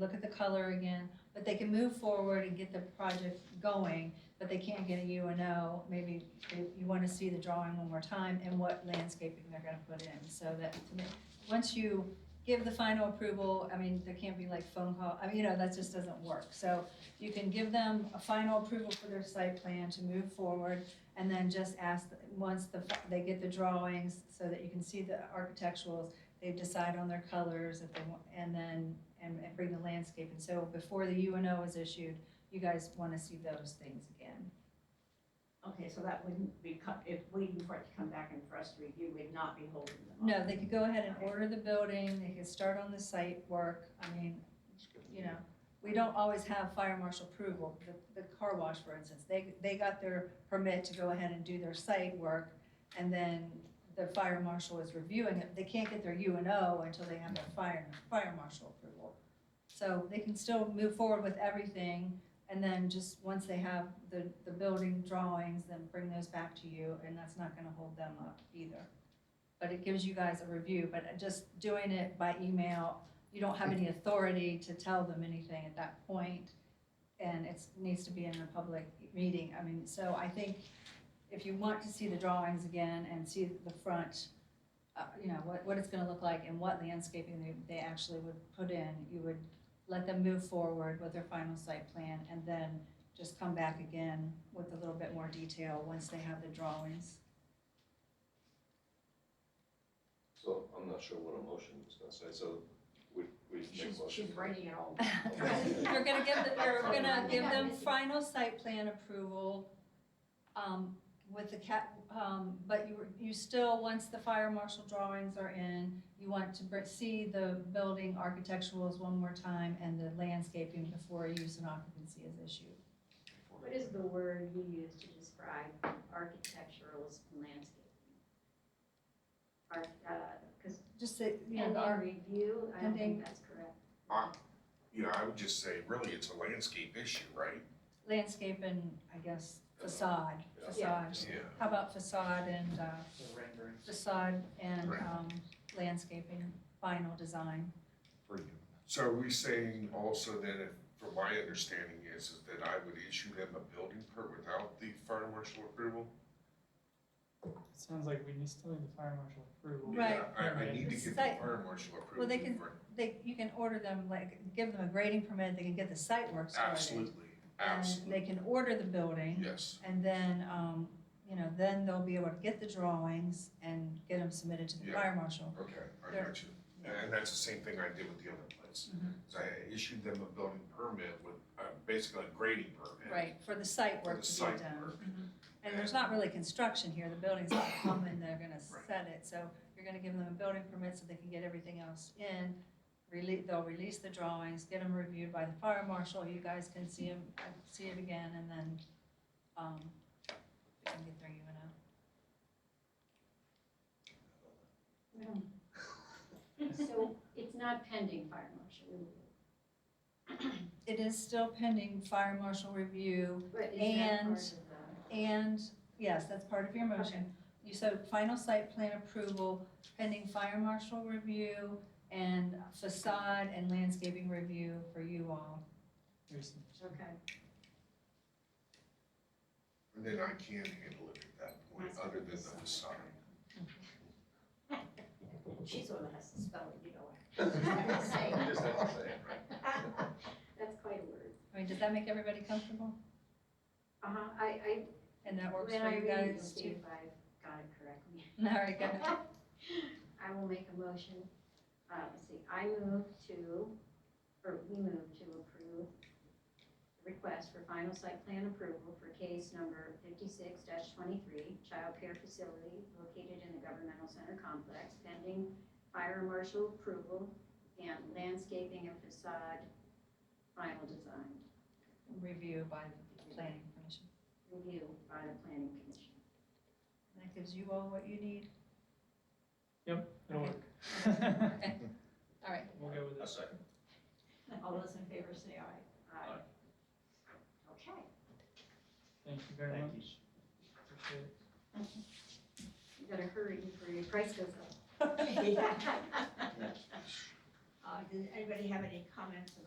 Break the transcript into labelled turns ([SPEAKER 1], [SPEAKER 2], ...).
[SPEAKER 1] look at the color again, but they can move forward and get the project going, but they can't get a U and O. Maybe they- you want to see the drawing one more time and what landscaping they're gonna put in, so that, to me- once you give the final approval, I mean, there can't be like phone call, I mean, you know, that just doesn't work. So you can give them a final approval for their site plan to move forward, and then just ask, once the, they get the drawings, so that you can see the architecturals, they decide on their colors, if they want, and then, and and bring the landscape. And so before the UNO is issued, you guys want to see those things again.
[SPEAKER 2] Okay, so that wouldn't be, co- if waiting for it to come back and for us to review, we'd not be holding them up.
[SPEAKER 1] No, they could go ahead and order the building, they could start on the site work, I mean, you know, we don't always have fire marshal approval. The, the car wash, for instance, they, they got their permit to go ahead and do their site work, and then the fire marshal is reviewing it. They can't get their U and O until they have their fire, fire marshal approval. So they can still move forward with everything, and then just, once they have the, the building drawings, then bring those back to you, and that's not gonna hold them up either. But it gives you guys a review, but just doing it by email you don't have any authority to tell them anything at that point, and it's, needs to be in a public meeting, I mean, so I think if you want to see the drawings again and see the front, uh, you know, what, what it's gonna look like and what landscaping they, they actually would put in, you would let them move forward with their final site plan, and then just come back again with a little bit more detail once they have the drawings.
[SPEAKER 3] So I'm not sure what a motion is gonna say, so we, we make
[SPEAKER 2] She's,
[SPEAKER 3] a motion.
[SPEAKER 2] she's writing it all.
[SPEAKER 1] You're gonna give, the- you're gonna give them
[SPEAKER 2] Yeah.
[SPEAKER 1] final site plan approval, um, with the cap, um, but you, you still, once the fire marshal drawings are in, you want to br- see the building architecturals one more time and the landscaping before use and occupancy is issued.
[SPEAKER 4] What is the word you use to describe architecturalist landscaping? Arch, uh, because
[SPEAKER 1] Just say, you know,
[SPEAKER 4] and
[SPEAKER 1] the
[SPEAKER 4] in
[SPEAKER 1] arch-
[SPEAKER 4] review, I don't
[SPEAKER 1] pending-
[SPEAKER 4] think that's correct.
[SPEAKER 5] Uh, You know, I would just say, really, it's a landscape issue, right?
[SPEAKER 1] landscape and, I guess, facade,
[SPEAKER 3] Yeah.
[SPEAKER 1] facade.
[SPEAKER 5] Yeah.
[SPEAKER 1] How about facade and, uh,
[SPEAKER 6] the renderings.
[SPEAKER 1] facade and,
[SPEAKER 5] Right.
[SPEAKER 1] um, landscaping, final design?
[SPEAKER 5] So are we saying also that if, from my understanding is, is that I would issue them a building permit without the fire marshal approval?
[SPEAKER 6] It sounds like we need still need the fire marshal approval.
[SPEAKER 1] Right.
[SPEAKER 5] Yeah, I, I need to get the
[SPEAKER 1] Site-
[SPEAKER 5] fire marshal approval.
[SPEAKER 1] Well, they can-
[SPEAKER 5] for-
[SPEAKER 1] they, you can order them, like, give them a grading permit, they can get the site work started.
[SPEAKER 5] Absolutely,
[SPEAKER 1] And
[SPEAKER 5] absolutely,
[SPEAKER 1] they can order the building,
[SPEAKER 5] yes.
[SPEAKER 1] and then, um, you know, then they'll be able to get the drawings and get them submitted to the
[SPEAKER 5] Yeah.
[SPEAKER 1] fire marshal.
[SPEAKER 5] Okay, I
[SPEAKER 1] There.
[SPEAKER 5] got you. And that's the same thing I did with the other place.
[SPEAKER 1] Mhm.
[SPEAKER 5] Is I issued them a building permit with, uh, basically a grading permit.
[SPEAKER 1] Right, for the site
[SPEAKER 5] For
[SPEAKER 1] work
[SPEAKER 5] the
[SPEAKER 1] to be
[SPEAKER 5] site
[SPEAKER 1] done.
[SPEAKER 5] work.
[SPEAKER 1] Mhm. And there's not really construction here, the building's gonna come and they're gonna
[SPEAKER 5] Right.
[SPEAKER 1] set it, so you're gonna give them a building permit so they can get everything else in. Release, they'll release the drawings, get them reviewed by the fire marshal, you guys can see them, see it again, and then, um, they can get their U and O.
[SPEAKER 4] So it's not pending fire marshal review,
[SPEAKER 1] It is still pending fire marshal review
[SPEAKER 4] but is that
[SPEAKER 1] And-
[SPEAKER 4] part of the,
[SPEAKER 1] and, yes, that's part of your motion. You said final site plan approval pending fire marshal review and facade and landscaping review for you all.
[SPEAKER 6] There's some-
[SPEAKER 4] okay,
[SPEAKER 5] And then I can handle it at that point, other than the facade.
[SPEAKER 2] She's the one that has to spell it, you know.
[SPEAKER 3] You just have to say it, right?
[SPEAKER 4] that's quite a word.
[SPEAKER 1] I mean, does that make everybody comfortable?
[SPEAKER 4] Uh-huh, I, I,
[SPEAKER 1] And that works
[SPEAKER 4] when
[SPEAKER 1] for
[SPEAKER 4] I
[SPEAKER 1] you
[SPEAKER 4] read it,
[SPEAKER 1] guys
[SPEAKER 4] will see
[SPEAKER 1] too?
[SPEAKER 4] if I've got it correctly.
[SPEAKER 1] All right, good.
[SPEAKER 4] I will make a motion, uh, let's see, I move to, or we move to approve the request for final site plan approval for case number fifty-six twenty-three, childcare facility located in the governmental center complex pending fire marshal approval and landscaping and facade final design
[SPEAKER 1] Review by the planning commission.
[SPEAKER 4] review by the planning commission.
[SPEAKER 1] And That gives you all what you need?
[SPEAKER 6] It'll work.
[SPEAKER 1] Okay, all right.
[SPEAKER 6] We'll go with
[SPEAKER 3] A
[SPEAKER 6] it.
[SPEAKER 3] second.
[SPEAKER 2] All those in favor say aye.
[SPEAKER 4] Aye.
[SPEAKER 2] Okay.
[SPEAKER 6] Thank you very much. Appreciate it.
[SPEAKER 4] You gotta hurry before your price goes up.
[SPEAKER 2] Uh, does anybody have any comments about